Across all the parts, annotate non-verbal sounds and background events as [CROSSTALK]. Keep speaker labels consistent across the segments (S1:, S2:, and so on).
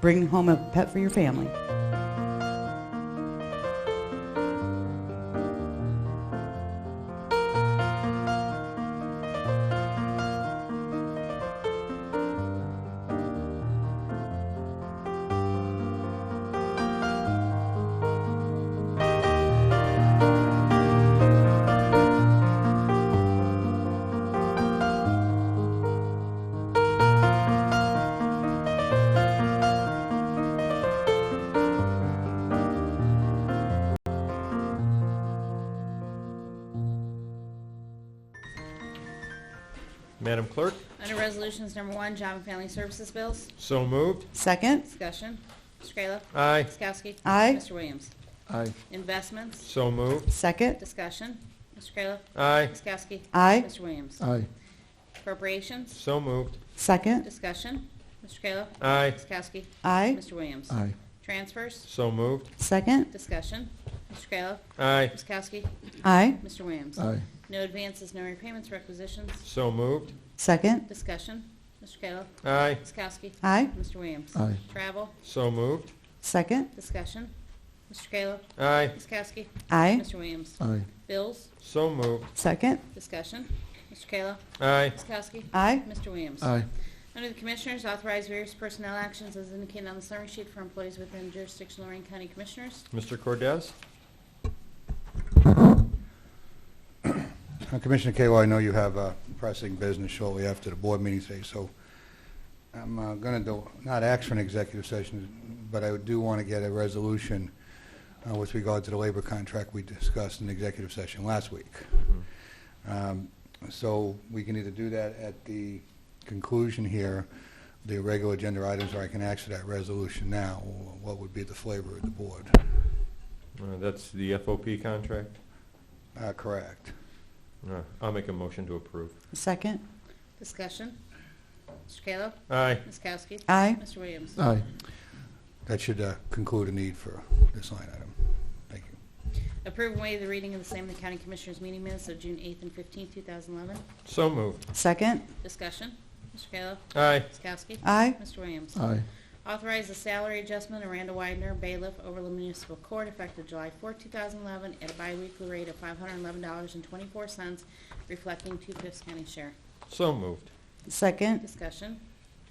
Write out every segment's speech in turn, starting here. S1: bring home a pet for your family.
S2: Madam Clerk,
S3: Under Resolutions Number One, Job and Family Services Bills,
S2: so moved.
S1: Second,
S3: discussion. Mr. Kayla.
S2: Aye.
S3: Ms. Kowski.
S1: Aye.
S3: Mr. Williams.
S2: Aye.
S3: Investments,
S2: So moved.
S1: second,
S3: discussion. Mr. Kayla.
S2: Aye.
S3: Ms. Kowski.
S1: Aye.
S3: Mr. Williams.
S2: Aye.
S3: Appropriations,
S2: So moved.
S1: second,
S3: discussion. Mr. Kayla.
S2: Aye.
S3: Ms. Kowski.
S1: aye,
S3: Mr. Williams.
S2: Aye.
S3: Transfers,
S2: So moved.
S1: second,
S3: discussion. Mr. Kayla.
S2: Aye.
S3: Ms. Kowski.
S1: aye,
S3: Mr. Williams.
S2: Aye.
S3: No advances, no repayments, requisitions,
S2: So moved.
S1: second,
S3: discussion. Mr. Kayla.
S2: Aye.
S3: Ms. Kowski.
S1: aye,
S3: Mr. Williams.
S2: Aye.
S3: Travel,
S2: So moved.
S1: second,
S3: discussion. Mr. Kayla.
S2: Aye.
S3: Ms. Kowski.
S1: aye,
S3: Mr. Williams.
S2: Aye.
S3: Bills,
S2: So moved.
S1: second,
S3: discussion. Mr. Kayla.
S2: Aye.
S3: Ms. Kowski.
S1: aye,
S3: Mr. Williams. Under the Commissioners, authorize various personnel actions as indicated on the summary sheet for employees within jurisdiction of Lorraine County Commissioners.
S2: Mr. Cordez?
S4: Uh, Commissioner Kayla, I know you have uh, pressing business shortly after the board meeting today, so I'm going to, not ask for an executive session, but I do want to get a resolution uh, with regard to the labor contract we discussed in the executive session last week. Um, So we can either do that at the conclusion here, the regular agenda items, or I can ask for that resolution now. What would be the flavor of the board?
S2: Uh, That's the FOP contract?
S4: Uh, Correct.
S2: Uh, I'll make a motion to approve.
S1: second,
S3: Discussion. Mr. Kayla.
S2: Aye.
S3: Ms. Kowski.
S1: aye,
S3: Mr. Williams.
S2: Aye.
S4: That should uh, conclude a need for this line item. Thank you.
S3: Approve and waive the reading of the same in the County Commissioners meeting minutes of June 8th and 15th, 2011.
S2: So moved.
S1: second,
S3: Discussion. Mr. Kayla.
S2: Aye.
S3: Ms. Kowski.
S1: aye,
S3: Mr. Williams.
S2: Aye.
S3: Authorize the salary adjustment of Randall Widener, bailiff, Overland Municipal Court, effective July 4, 2011, at a biweekly rate of $511.24, reflecting two-fifths county share.
S2: So moved.
S1: second,
S3: Discussion.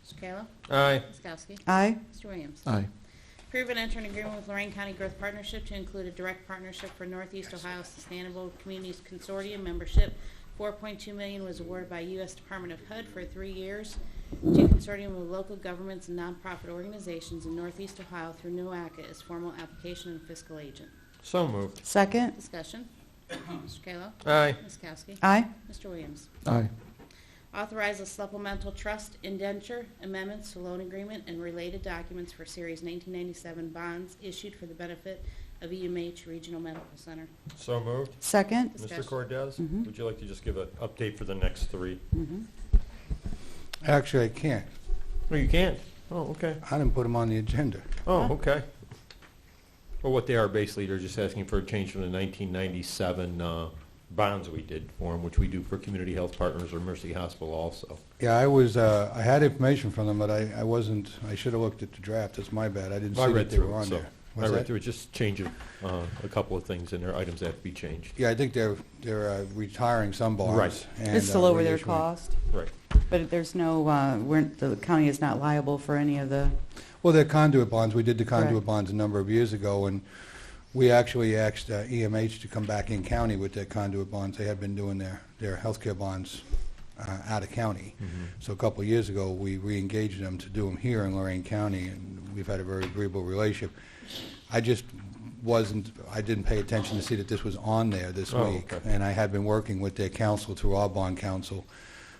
S3: Mr. Kayla.
S2: Aye.
S3: Ms. Kowski.
S1: aye,
S3: Mr. Williams.
S2: Aye.
S3: Approve and enter an agreement with Lorraine County Growth Partnership to include a direct partnership for Northeast Ohio Sustainable Communities Consortium membership. 4.2 million was awarded by U.S. Department of HUD for three years to consortium of local governments and nonprofit organizations in Northeast Ohio through NOACA as formal application and fiscal agent.
S2: So moved.
S1: second,
S3: Discussion. [COUGHS] Mr. Kayla.
S2: Aye.
S3: Ms. Kowski.
S1: aye,
S3: Mr. Williams.
S2: Aye.
S3: Authorize a supplemental trust indenture amendments to loan agreement and related documents for Series 1997 bonds issued for the benefit of EMH Regional Medical Center.
S2: So moved.
S1: second,
S2: Mr.
S3: Discussion.
S2: Cordez,
S1: Mhm.
S2: would you like to just give an update for the next three?
S1: mhm,
S4: Actually, I can't.
S2: Oh, you can't? Oh, okay.
S4: I didn't put them on the agenda.
S2: Oh, okay. Well, what they are basically, they're just asking for a change from the 1997 uh, bonds we did for them, which we do for Community Health Partners or Mercy Hospital also.
S4: Yeah, I was, uh, I had information from them, but I, I wasn't, I should have looked at the draft. That's my bad. I didn't
S2: I
S4: see
S2: read
S4: that they were
S2: through it,
S4: on
S2: so.
S4: there.
S2: I
S4: Was
S2: read
S4: that-
S2: through it, just changing uh, a couple of things in there, items that have to be changed.
S4: Yeah, I think they're, they're uh, retiring some bonds.
S2: Right.
S4: and,
S1: it's to
S4: uh,
S1: lower their
S4: reissuing-
S1: cost,
S2: Right.
S1: but there's no, uh, we're, the county is not liable for any of the,
S4: Well, they're conduit bonds. We did the conduit
S1: Correct.
S4: bonds a number of years ago, and we actually asked uh, EMH to come back in county with their conduit bonds. They had been doing their, their healthcare bonds uh, out of county.
S2: Mm-hmm.
S4: So a couple of years ago, we re-engaged them to do them here in Lorraine County, and we've had a very agreeable relationship. I just wasn't, I didn't pay attention to see that this was on there this
S2: Oh,
S4: week.
S2: okay.
S4: And I had been working with their council through our bond council,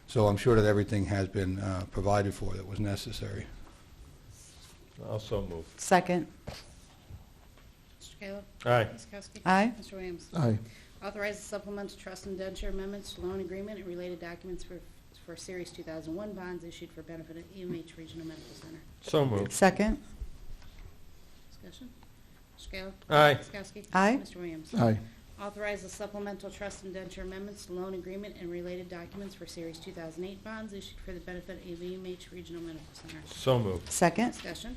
S4: so I'm sure that everything has been uh, provided for that was necessary.
S2: Also moved.
S1: second,
S3: Mr. Kayla.
S2: Aye.
S3: Ms. Kowski.
S1: aye,
S3: Mr. Williams.
S2: Aye.
S3: Authorize the supplemental trust indenture amendments to loan agreement and related documents for, for Series 2001 bonds issued for benefit of EMH Regional Medical Center.
S2: So moved.
S1: second,
S3: Discussion. Mr. Kayla.
S2: Aye.
S3: Ms. Kowski.
S1: Aye.
S3: Mr. Williams.
S2: Aye.
S3: Authorize the supplemental trust indenture amendments to loan agreement and related documents for Series 2008 bonds issued for the benefit of AVMH Regional Medical Center.
S2: So moved.
S1: second,
S3: Discussion.